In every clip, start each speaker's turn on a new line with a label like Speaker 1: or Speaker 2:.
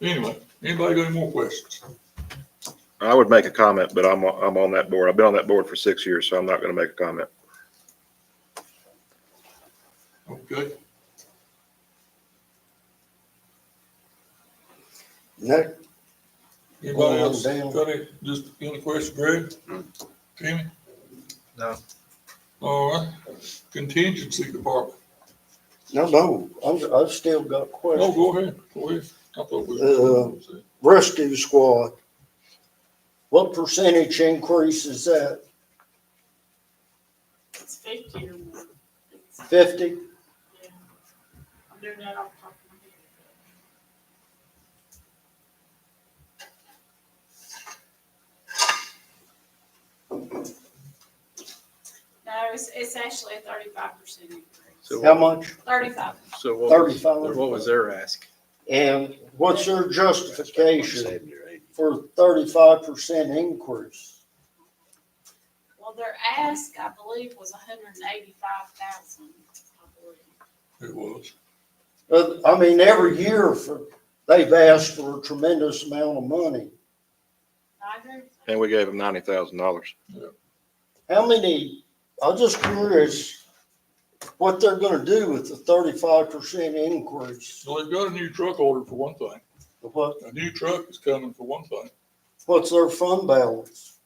Speaker 1: Anyway, anybody got any more questions?
Speaker 2: I would make a comment, but I'm, I'm on that board. I've been on that board for six years, so I'm not going to make a comment.
Speaker 1: Okay,
Speaker 3: No,
Speaker 1: anybody
Speaker 3: Well,
Speaker 1: else
Speaker 3: damn.
Speaker 1: got it, just any question, Greg? Kenny?
Speaker 4: No.
Speaker 1: All right, contingency department.
Speaker 3: no, no, I'm, I've still got
Speaker 1: No,
Speaker 3: questions.
Speaker 1: go ahead, go ahead. I thought
Speaker 5: Uh-huh.
Speaker 3: Uh,
Speaker 1: we.
Speaker 3: Rescue squad, what percentage increase is that?
Speaker 6: It's fifty or more. It's-
Speaker 3: Fifty?
Speaker 6: yeah. I'm doing that off the top of my head. No, it's, it's actually a thirty-five percent increase.
Speaker 4: So
Speaker 3: How
Speaker 4: what-
Speaker 3: much?
Speaker 6: Thirty-five.
Speaker 4: So what was,
Speaker 3: 35.
Speaker 4: what was their ask?
Speaker 3: And what's their justification for thirty-five percent increase?
Speaker 6: Well, their ask, I believe, was hundred and eighty-five thousand, I believe.
Speaker 1: It was,
Speaker 3: Uh, I mean, every year for, they've asked for a tremendous amount of money.
Speaker 6: I agree with that.
Speaker 2: And we gave them ninety thousand dollars.
Speaker 3: How many, I'm just curious what they're gonna do with the thirty-five percent increase.
Speaker 1: so they've got a new truck ordered for one thing,
Speaker 3: What,
Speaker 1: a new truck is coming for one thing,
Speaker 3: what's their fund balance?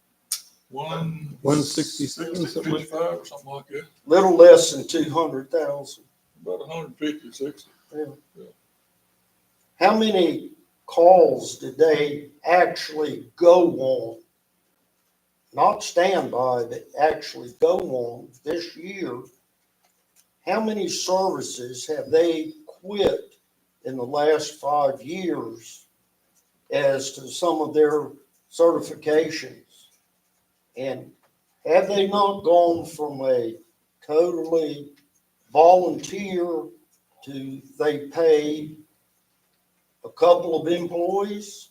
Speaker 1: one.
Speaker 5: One sixty-seven, something like,
Speaker 1: Fifty-five or something like that,
Speaker 3: Little less than two hundred thousand.
Speaker 1: about a hundred and fifty, sixty.
Speaker 3: How many calls did they actually go on? Not standby, but actually go on this year? How many services have they quit in the last five years as to some of their certifications? And have they not gone from a totally volunteer to they pay a couple of employees,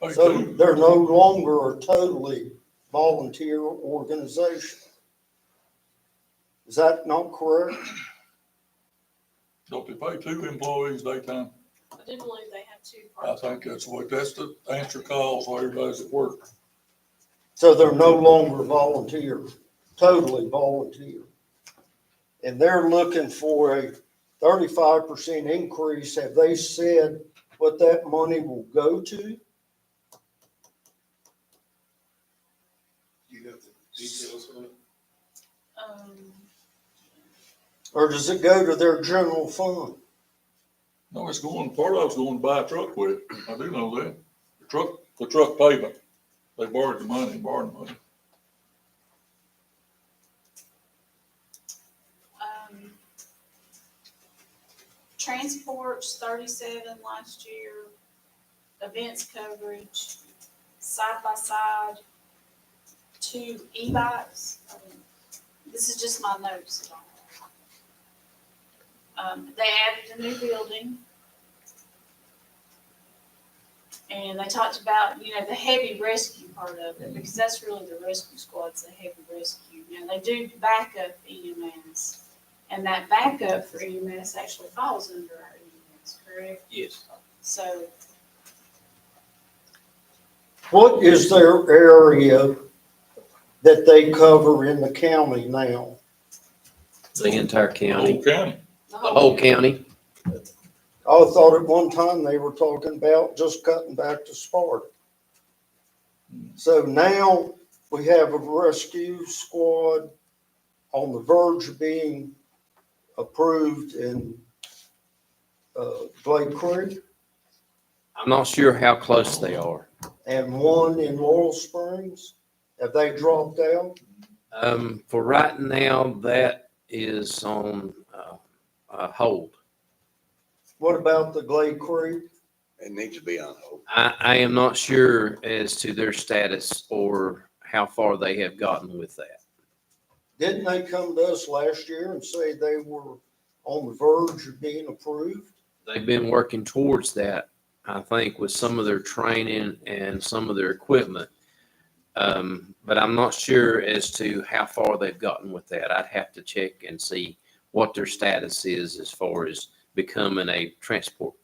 Speaker 1: Hey,
Speaker 3: so
Speaker 1: dude,
Speaker 3: they're no longer a totally volunteer organization. Is that not correct?
Speaker 1: Don't they pay two employees daytime?
Speaker 6: I do believe they have two
Speaker 1: I
Speaker 6: parts.
Speaker 1: think that's what, that's the answer calls while everybody's at work.
Speaker 3: So they're no longer volunteer, totally volunteer. And they're looking for a thirty-five percent increase. Have they said what that money will go to?
Speaker 7: You got the details on it?
Speaker 6: Um,
Speaker 3: Or does it go to their general fund?
Speaker 1: No, it's going, part of it's going to buy a truck with it. I do know that. The truck, the truck payment. They borrowed the money, borrowed the money.
Speaker 6: um, transports thirty-seven last year, events coverage, side by side, two e-bikes. Um, This is just my notes. Um, they added a new building. And they talked about, you know, the heavy rescue part of it, because that's really the rescue squad's the heavy rescue. Now, they do backup E EMS. And that backup for EMS actually falls under our EMS, correct?
Speaker 4: Yes.
Speaker 6: So
Speaker 3: What is their area that they cover in the county now?
Speaker 8: The entire
Speaker 1: Whole
Speaker 8: county,
Speaker 1: county.
Speaker 6: the
Speaker 8: the
Speaker 6: whole,
Speaker 8: whole county.
Speaker 3: I thought at one time they were talking about just cutting back to Sparta. So now we have a rescue squad on the verge of being approved in uh, Glade Creek
Speaker 8: I'm not sure how close they are.
Speaker 3: and one in Laurel Springs. Have they dropped out?
Speaker 8: Um, for right now, that is on, uh, uh, hold.
Speaker 3: What about the Glade Creek?
Speaker 7: It needs to be on hold.
Speaker 8: I, I am not sure as to their status or how far they have gotten with that.
Speaker 3: Didn't they come to us last year and say they were on the verge of being approved?
Speaker 8: They've been working towards that, I think, with some of their training and some of their equipment. Um, but I'm not sure as to how far they've gotten with that. I'd have to check and see what their status is as far as becoming a transport